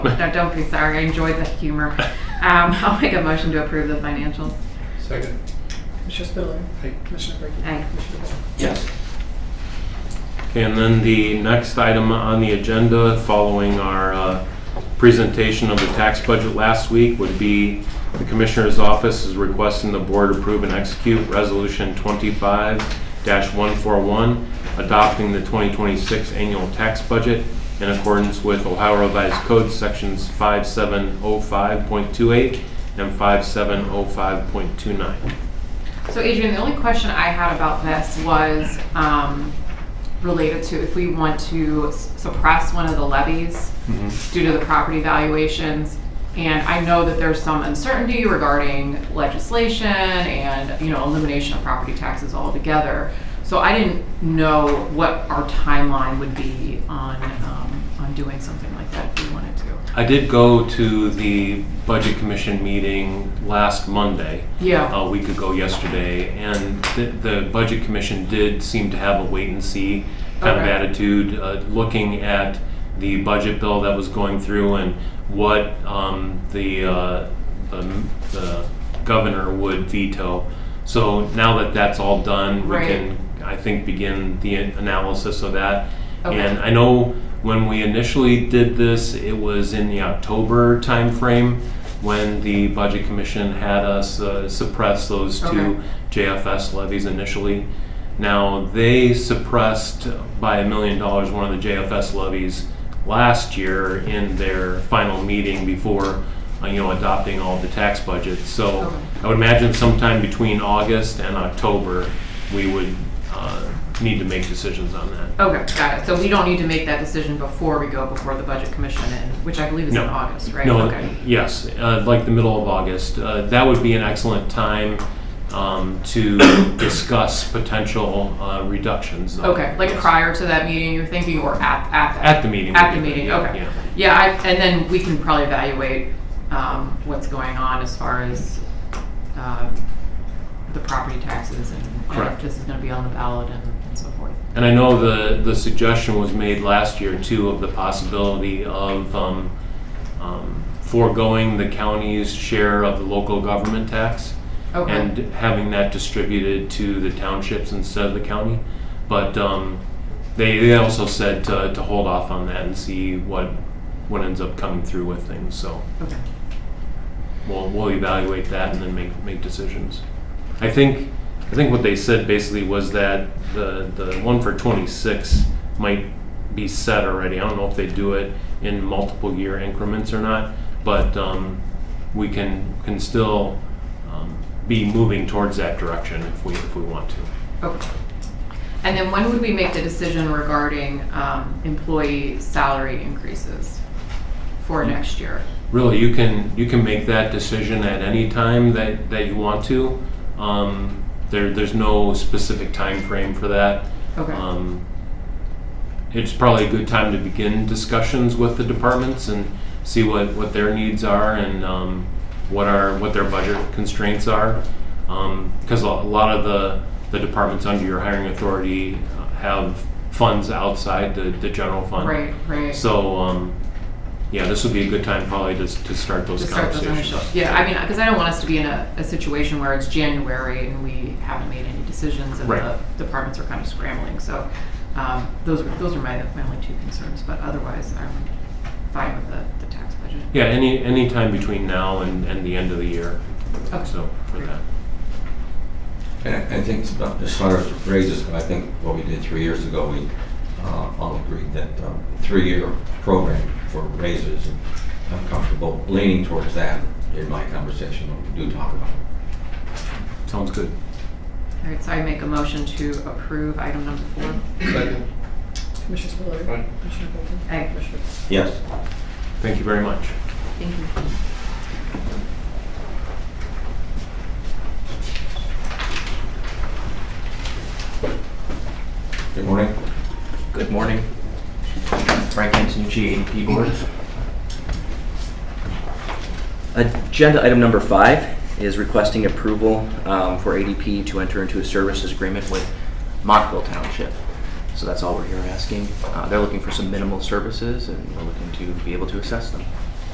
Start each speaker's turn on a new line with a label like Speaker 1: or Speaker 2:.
Speaker 1: No, don't be sorry. I enjoyed the humor. Um, I'll make a motion to approve the financials.
Speaker 2: Second.
Speaker 3: Commissioner Spiller.
Speaker 2: Aye.
Speaker 3: Commissioner Brinkley.
Speaker 1: Aye.
Speaker 3: Commissioner Bowe.
Speaker 4: Yes. And then the next item on the agenda, following our uh, presentation of the tax budget last week, would be the Commissioner's Office is requesting the Board approve and execute Resolution 25-141, adopting the 2026 annual tax budget in accordance with Ohio Revised Code Sections 5705.28 and 5705.29.
Speaker 1: So Adrian, the only question I had about this was um, related to if we want to s- suppress one of the levies due to the property valuations. And I know that there's some uncertainty regarding legislation and, you know, elimination of property taxes altogether. So I didn't know what our timeline would be on, um, on doing something like that if we wanted to.
Speaker 4: I did go to the Budget Commission meeting last Monday,
Speaker 1: Yeah,
Speaker 4: a week ago yesterday, and the, the Budget Commission did seem to have a wait and see kind of
Speaker 1: Okay.
Speaker 4: attitude, uh, looking at the budget bill that was going through and what um, the, uh, the, the governor would veto. So now that that's all done, we
Speaker 1: Right.
Speaker 4: can, I think, begin the analysis of that.
Speaker 1: Okay.
Speaker 4: And I know when we initially did this, it was in the October timeframe when the Budget Commission had us uh, suppress those two
Speaker 1: Okay.
Speaker 4: JFS levies initially. Now, they suppressed by a million dollars one of the JFS levies last year in their final meeting before, uh, you know, adopting all the tax budgets. So
Speaker 1: Okay.
Speaker 4: I would imagine sometime between August and October, we would uh, need to make decisions on that.
Speaker 1: okay, got it. So we don't need to make that decision before we go before the budget commission in, which I believe is in
Speaker 4: No.
Speaker 1: August, right?
Speaker 4: No,
Speaker 1: Okay.
Speaker 4: yes, uh, like the middle of August. Uh, That would be an excellent time um, to discuss potential uh, reductions. of-
Speaker 1: Okay, like
Speaker 4: yes.
Speaker 1: prior to that meeting, you're thinking, or at, at that?
Speaker 4: At the meeting.
Speaker 1: At the meeting,
Speaker 4: Yeah,
Speaker 1: okay.
Speaker 4: yeah.
Speaker 1: Yeah, I, and then we can probably evaluate, um, what's going on as far as, um, the property taxes and and if
Speaker 4: Correct.
Speaker 1: this is gonna be on the ballot and and so forth.
Speaker 4: And I know the, the suggestion was made last year too of the possibility of um, um, foregoing the county's share of the local government tax.
Speaker 1: Okay.
Speaker 4: and having that distributed to the townships instead of the county. But um, they, they also said to, to hold off on that and see what, what ends up coming through with things. So
Speaker 1: Okay,
Speaker 4: we'll, we'll evaluate that and then make, make decisions. I think, I think what they said basically was that the, the one for 26 might be set already. I don't know if they do it in multiple year increments or not, but um, we can, can still um, be moving towards that direction if we, if we want to.
Speaker 1: okay. And then when would we make the decision regarding, um, employee salary increases for
Speaker 4: Hmm.
Speaker 1: next year?
Speaker 4: really you can you can make that decision at any time that that you want to um, there there's no specific time frame for that
Speaker 1: Okay.
Speaker 4: um, it's probably a good time to begin discussions with the departments and see what what their needs are and um, what are what their budget constraints are because a lot of the the departments under your hiring authority uh, have funds outside the, the general fund
Speaker 1: Right, right.
Speaker 4: so, um, yeah, this would be a good time probably to, to start those
Speaker 1: to start those
Speaker 4: conversations.
Speaker 1: initial. Yeah, I mean, because I don't want us to be in a, a situation where it's January and we haven't made any decisions and
Speaker 4: Right.
Speaker 1: the departments are kind of scrambling. So um, those are those are my my only two concerns. But otherwise, I'm fine with the, the tax budget.
Speaker 4: Yeah, any, any time between now and, and the end of the year,
Speaker 1: Okay.
Speaker 4: so for that.
Speaker 5: And I- I think uh, as far as raises, I think what we did three years ago, we uh, all agreed that um, three-year program for raises, and I'm comfortable leaning towards that in my conversation when we do talk about it.
Speaker 4: Sounds good.
Speaker 1: All right, so I make a motion to approve item number four.
Speaker 2: Second.
Speaker 3: Commissioner Spiller.
Speaker 2: Aye.
Speaker 3: Commissioner Bowe.
Speaker 1: Aye.
Speaker 3: Commissioner Bowe.
Speaker 5: Yes.
Speaker 4: Thank you very much.
Speaker 1: Thank you.
Speaker 5: Good morning.
Speaker 6: Good morning. Frank Antonucci, ADP Board. Agenda item number five is requesting approval um, for ADP to enter into a services agreement with Montville Township. So that's all we're here asking. Uh, They're looking for some minimal services, and we're looking to be able to assess them.